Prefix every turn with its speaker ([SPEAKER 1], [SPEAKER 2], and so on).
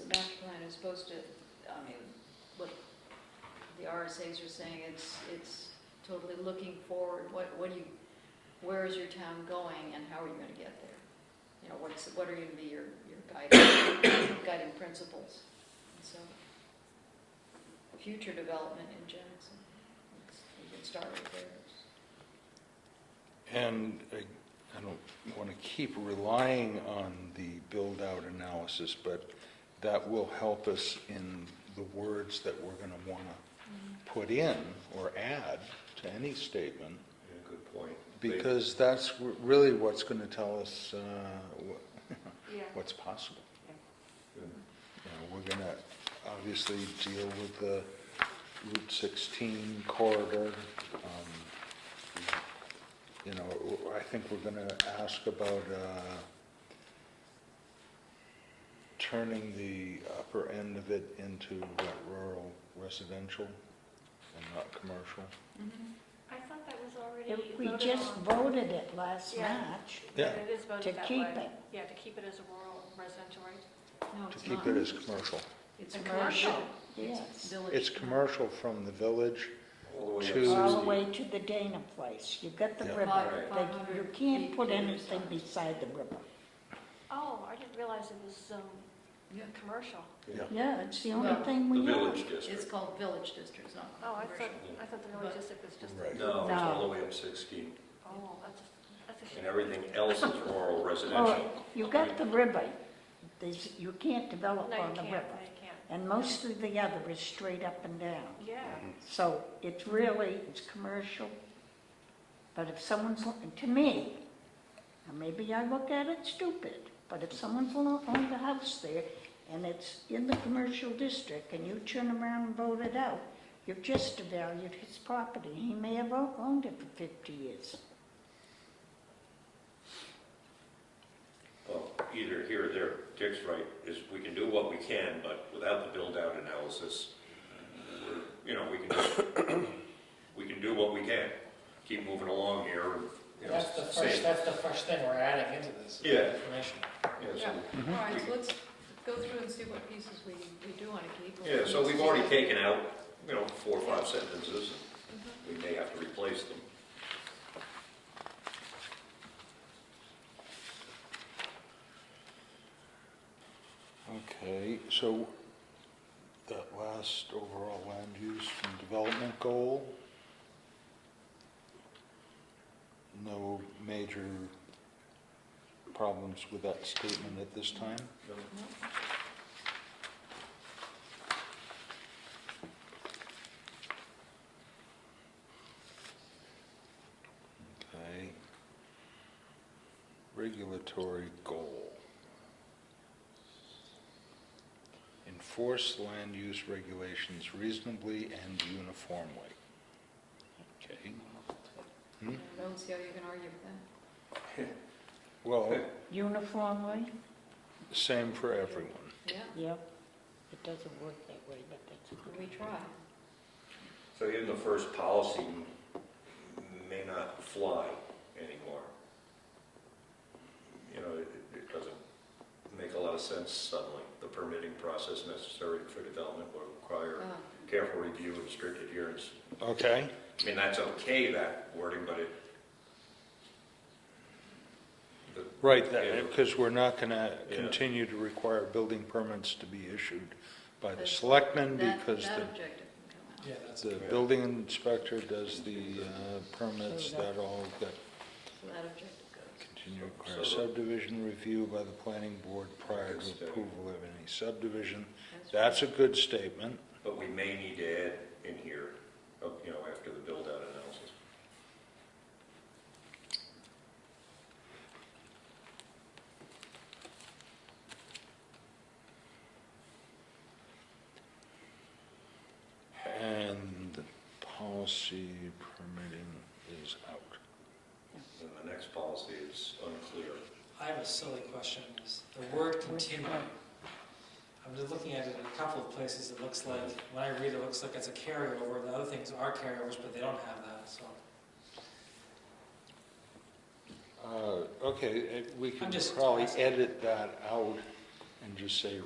[SPEAKER 1] the master plan is supposed to, I mean, what the RSAs are saying, it's, it's totally looking forward, what, what do you, where is your town going and how are you gonna get there? You know, what's, what are gonna be your, your guiding, guiding principles? And So, future development in Jackson, It's- you can start with there.
[SPEAKER 2] And I I don't want to keep relying on the build-out analysis, but that will help us in the words that we're going to want to put in or add to any statement,
[SPEAKER 3] Yeah, Good point. They-
[SPEAKER 2] because that's r- really what's going to tell us uh, wha-
[SPEAKER 4] Yeah.
[SPEAKER 2] what's possible.
[SPEAKER 3] yeah,
[SPEAKER 2] You know, We're going to obviously deal with the Route 16 corridor. um, You know, I think we're going to ask about uh, turning the upper end of it into what, rural residential and not commercial.
[SPEAKER 1] Mm-hmm.
[SPEAKER 4] I thought that was already
[SPEAKER 5] It- We
[SPEAKER 4] voted
[SPEAKER 5] just
[SPEAKER 4] on.
[SPEAKER 5] voted it last
[SPEAKER 4] Yeah.
[SPEAKER 5] March.
[SPEAKER 2] Yeah,
[SPEAKER 4] It is
[SPEAKER 5] to
[SPEAKER 4] voted that
[SPEAKER 5] keep
[SPEAKER 4] way.
[SPEAKER 5] it.
[SPEAKER 4] Yeah, to keep it as a rural residential, right?
[SPEAKER 1] No,
[SPEAKER 2] to
[SPEAKER 1] it's
[SPEAKER 2] keep
[SPEAKER 1] not.
[SPEAKER 2] it as commercial.
[SPEAKER 1] It's
[SPEAKER 4] A
[SPEAKER 1] commercial.
[SPEAKER 4] commercial.
[SPEAKER 5] Yes.
[SPEAKER 1] Village.
[SPEAKER 2] It's commercial from the village.
[SPEAKER 3] All the way
[SPEAKER 2] To-
[SPEAKER 3] up. to
[SPEAKER 5] All the
[SPEAKER 3] 60.
[SPEAKER 5] way to the Dana place. You've got the
[SPEAKER 2] Yeah.
[SPEAKER 5] river,
[SPEAKER 4] Right.
[SPEAKER 5] but you
[SPEAKER 1] 500
[SPEAKER 5] can't
[SPEAKER 1] feet
[SPEAKER 5] put
[SPEAKER 1] to the
[SPEAKER 5] anything
[SPEAKER 1] side.
[SPEAKER 5] beside the river.
[SPEAKER 4] Oh, I didn't realize it was, um,
[SPEAKER 1] Yeah.
[SPEAKER 4] commercial.
[SPEAKER 2] Yeah.
[SPEAKER 5] Yeah, it's the
[SPEAKER 1] Well,
[SPEAKER 5] only thing
[SPEAKER 3] The
[SPEAKER 5] we
[SPEAKER 3] village
[SPEAKER 5] know.
[SPEAKER 1] It's
[SPEAKER 3] district.
[SPEAKER 1] called village districts, not
[SPEAKER 4] Oh, I
[SPEAKER 1] commercial.
[SPEAKER 4] thought, I thought the village district was just,
[SPEAKER 2] Right.
[SPEAKER 3] No, it's all
[SPEAKER 5] No.
[SPEAKER 3] the way up 16,
[SPEAKER 4] oh, that's, that's a shame.
[SPEAKER 3] and everything else is rural
[SPEAKER 5] Oh,
[SPEAKER 3] residential.
[SPEAKER 5] you've got the river. There's, you can't develop
[SPEAKER 4] No, you
[SPEAKER 5] on
[SPEAKER 4] can't,
[SPEAKER 5] the
[SPEAKER 4] no,
[SPEAKER 5] river.
[SPEAKER 4] you can't.
[SPEAKER 5] And most of the other is straight up and down.
[SPEAKER 4] Yeah,
[SPEAKER 5] So it's really, it's commercial, but if someone's, looking to me, and maybe I look at it stupid, but if someone's lo- owned a house there and it's in the commercial district and you turn around and vote it out, you've just devalued his property. He may have o- owned it for 50 years.
[SPEAKER 3] Well, either here or there, Dick's right, is we can do what we can, but without the build-out analysis, we're- you know, we can, just- we can do what we can, keep moving along here, and, you know,
[SPEAKER 6] That's the first,
[SPEAKER 3] save.
[SPEAKER 6] that's the first thing we're adding into this.
[SPEAKER 3] Yeah.
[SPEAKER 6] Information.
[SPEAKER 3] Yeah, so-
[SPEAKER 1] Yeah, all right, so let's go through and see what pieces we, we do want to keep.
[SPEAKER 3] Yeah, so we've already taken out, you know, four or five sentences,
[SPEAKER 5] Mm-hmm.
[SPEAKER 3] we may have to replace them.
[SPEAKER 2] Okay, so that last overall land use and development goal, no major problems with that statement at this time? Okay. Regulatory goal. Enforce land use regulations reasonably and uniformly. Okay,
[SPEAKER 1] I don't see how you can argue with that.
[SPEAKER 2] well,
[SPEAKER 5] Uniformly,
[SPEAKER 2] same for everyone.
[SPEAKER 1] Yeah,
[SPEAKER 5] yep, it doesn't work that way, but that's
[SPEAKER 1] we try.
[SPEAKER 3] So even the first policy may not fly anymore. You know, it, it doesn't make a lot of sense suddenly. The permitting process necessary for development will require
[SPEAKER 1] Uh,
[SPEAKER 3] careful review and strict adherence.
[SPEAKER 2] Okay,
[SPEAKER 3] I mean, that's okay, that wording, but it. the-
[SPEAKER 2] right,
[SPEAKER 3] Yeah.
[SPEAKER 2] because we're not going to
[SPEAKER 3] Yeah.
[SPEAKER 2] continue to require building permits to be issued by
[SPEAKER 1] But
[SPEAKER 2] the selectmen
[SPEAKER 1] That,
[SPEAKER 2] because
[SPEAKER 1] that
[SPEAKER 2] the
[SPEAKER 1] objective can come
[SPEAKER 6] Yeah,
[SPEAKER 1] out.
[SPEAKER 6] that's.
[SPEAKER 2] The
[SPEAKER 3] Yeah.
[SPEAKER 2] building inspector does the uh, permits,
[SPEAKER 5] So that-
[SPEAKER 2] that all got
[SPEAKER 1] So that objective goes.
[SPEAKER 2] continued
[SPEAKER 3] So-
[SPEAKER 2] requires
[SPEAKER 3] so-
[SPEAKER 2] subdivision review by the planning board prior
[SPEAKER 3] Good
[SPEAKER 2] to
[SPEAKER 3] statement.
[SPEAKER 2] approval of any subdivision.
[SPEAKER 1] That's-
[SPEAKER 2] That's a good statement.
[SPEAKER 3] But we may need to add in here, uh, you know, after the build-out analysis.
[SPEAKER 2] And the policy permitting is out.
[SPEAKER 3] And the next policy is unclear.
[SPEAKER 6] I have a silly question, is the word continue. I'm just looking at it in a couple of places, it looks like, when I read it, it looks like it's a carryover, the other things are carryovers, but they don't have that, so.
[SPEAKER 2] Uh, Okay, eh, we can
[SPEAKER 6] I'm just-
[SPEAKER 2] Uh, eh, probably edit that out and just say